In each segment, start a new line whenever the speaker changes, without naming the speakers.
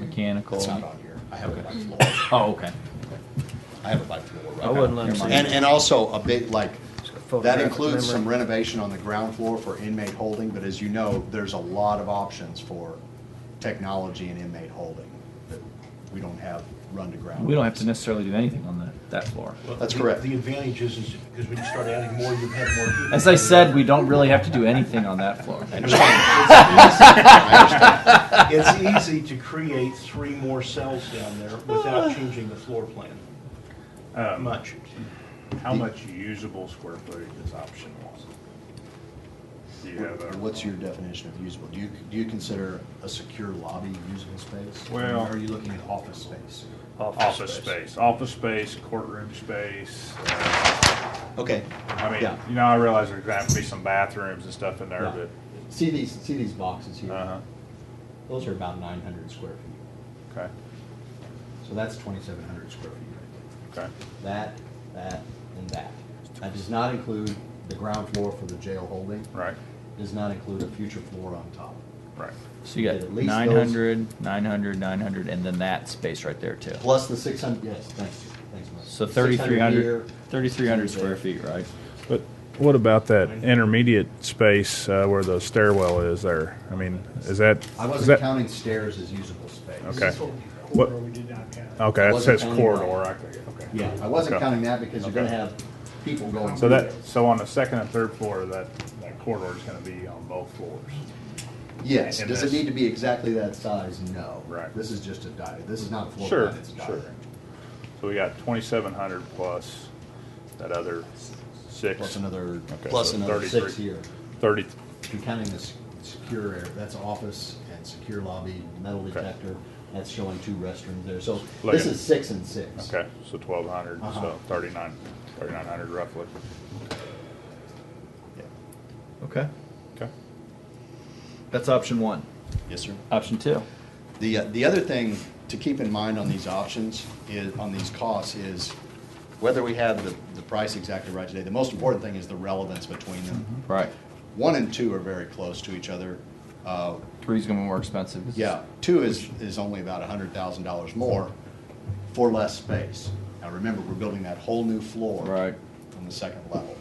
mechanical.
It's not on here. I have it by floor.
Oh, okay.
I have it by floor. right
I wouldn't
now.
let 'em
Never
see
mind.
it.
And, and also a big, like, that
Photographic
includes some
memory.
renovation on the ground floor for inmate holding, but as you know, there's a lot of options for technology and inmate holding that we don't have run to ground.
We don't have to necessarily do anything on the, that floor.
Well,
That's
the-
correct.
The advantage is, is because when you start adding more, you have more. people.
As I said, we don't really have to do anything on that floor.
I understand. It's easy. I understand.
It's easy to create three more cells down there
Ah.
without changing the floor plan
Um,
much.
How much usable square footage is option one? Do you have a?
What's your definition of usable? Do you, do you consider a secure lobby usable space?
Well-
Or are you looking at office space?
Office space, office space, courtroom space. uh,
Okay.
I mean,
Yeah.
you know, I realize there's gonna have to be some bathrooms and stuff in there,
Yeah.
but,
See these, see these boxes here?
uh-huh,
Those are about nine hundred square feet.
okay,
So that's twenty-seven hundred square feet right
okay.
there. That, that, and that. That does not include the ground floor for the jail holding.
Right,
Does not include a future floor on top.
right.
So you got
At least
900, 900, 900, and then that space right there too.
Plus the six hundred, yes, thanks, thanks much.
So 3,300, 3,300 square
there.
feet, right?
But what about that intermediate space uh, where the stairwell is there? I mean, is that?
I
is
wasn't
that-
counting stairs as usable space.
Okay. What-
Corridor we did not count.
Okay, that
Wasn't
says
counting that.
corridor, Oh, I think, okay.
Yeah, I wasn't
Okay.
counting that because you're gonna
Okay.
have people going.
So
through
that,
there.
so on the second and third floor, that, that corridor is gonna be on both floors.
Yes,
And
does it
this-
need to be exactly that size? No.
Right.
This is just a diet, this is not a floor
Sure,
plan, it's a
sure.
diagram.
So we got twenty-seven hundred plus that other six.
Plus another,
Okay,
plus
so
another
33.
six here.
Thirty,
If you're counting the se- secure area, that's office and secure lobby, metal
Okay.
detector, that's showing two restrooms there, so
Look
this
at-
is six and six.
okay, so twelve hundred,
Uh-huh.
so thirty-nine, thirty-nine hundred roughly.
Okay.
Okay.
That's option one.
Yes, sir.
Option two.
The, uh, the other thing to keep in mind on these options is, on these costs is whether we have the, the price exactly right today. The most important thing is the relevance between them.
Mm-hmm.
Right.
One and two are very close to each other. Uh,
Three's gonna be more expensive. 'cause
yeah, two is, is only about a hundred thousand dollars more for less space. Now, remember, we're building that whole new floor.
Right.
On the second level.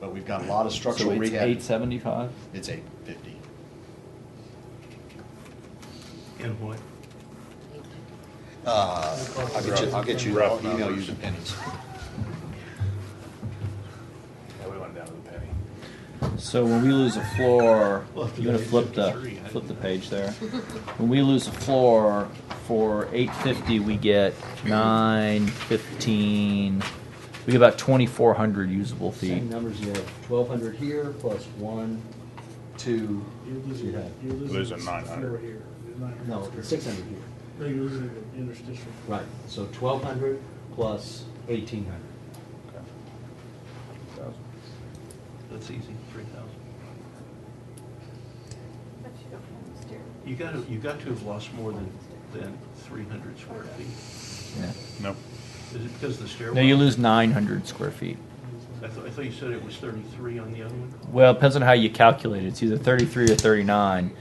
But we've got a lot of
So
structural
it's
rehab.
eight seventy-five?
It's eight fifty.
And what?
Uh, I'll get you, I'll get you, I'll
Rough
email you
numbers.
the pennies.
Yeah, we went down to the penny.
So when we lose a floor,
Well, if
you're gonna
you
flip
did
the,
53, I
flip the
didn't know.
page there. When we lose a floor, for eight fifty, we get nine fifteen, we get about twenty-four hundred usable feet.
Same numbers, you have twelve hundred here, plus one, two,
You're
you
losing,
have,
you're losing.
Losing
the
900.
floor here, the 900
no,
square
six
feet.
hundred here.
No, you're losing the interstitial.
Right, so twelve hundred plus eighteen hundred.
That's easy, three thousand. You gotta, you got to have lost more than, than three hundred square feet.
Yeah.
No,
Is it because of the stairwell?
No, you lose nine hundred square feet.
I thought, I thought you said it was thirty-three on the other one?
Well, it depends on how you calculate it. It's either 33 or 39.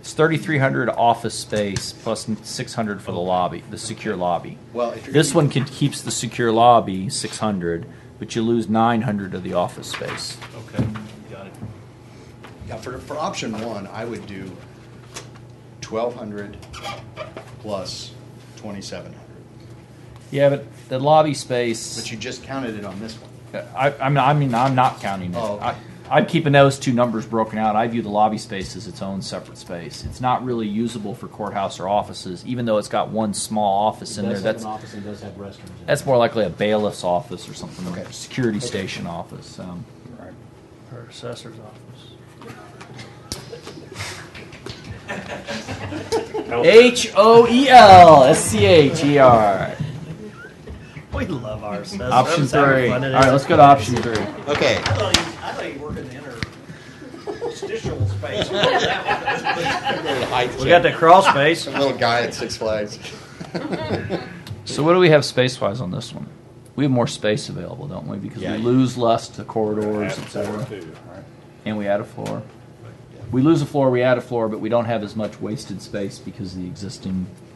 It's 3,300 office space plus 600 for the lobby, the secure lobby.
Well, if you're.
This one could, keeps the secure lobby 600, but you lose 900 of the office space.
Okay, got it.
Yeah, for, for option one, I would do twelve hundred plus twenty-seven hundred,
Yeah, but the lobby space.
but you just counted it on this one.
I, I mean, I mean, I'm not counting it.
Oh, okay.
I, I'm keeping those two numbers broken out. I view the lobby space as its own separate space. It's not really usable for courthouse or offices, even though it's got one small office in there.
It does have
That's
an office and does have restrooms. in it.
That's more likely a bailiff's office or something, like
Okay.
a security station office. Um,
right.
Her assessor's office.
H O E L S C H E R.
We love our assessors.
Option three. All right, let's go to option three.
Okay.
I thought you, I thought you worked in the interstitial space.
We got that crawl space.
Little guy at Six Flags.
So what do we have space wise on this one? We have more space available, don't we? Because
Yeah.
we lose less to corridors,
Add
et cetera,
two, right?
and we add a floor. We lose a floor, we add a floor, but we don't have as much wasted space because of the existing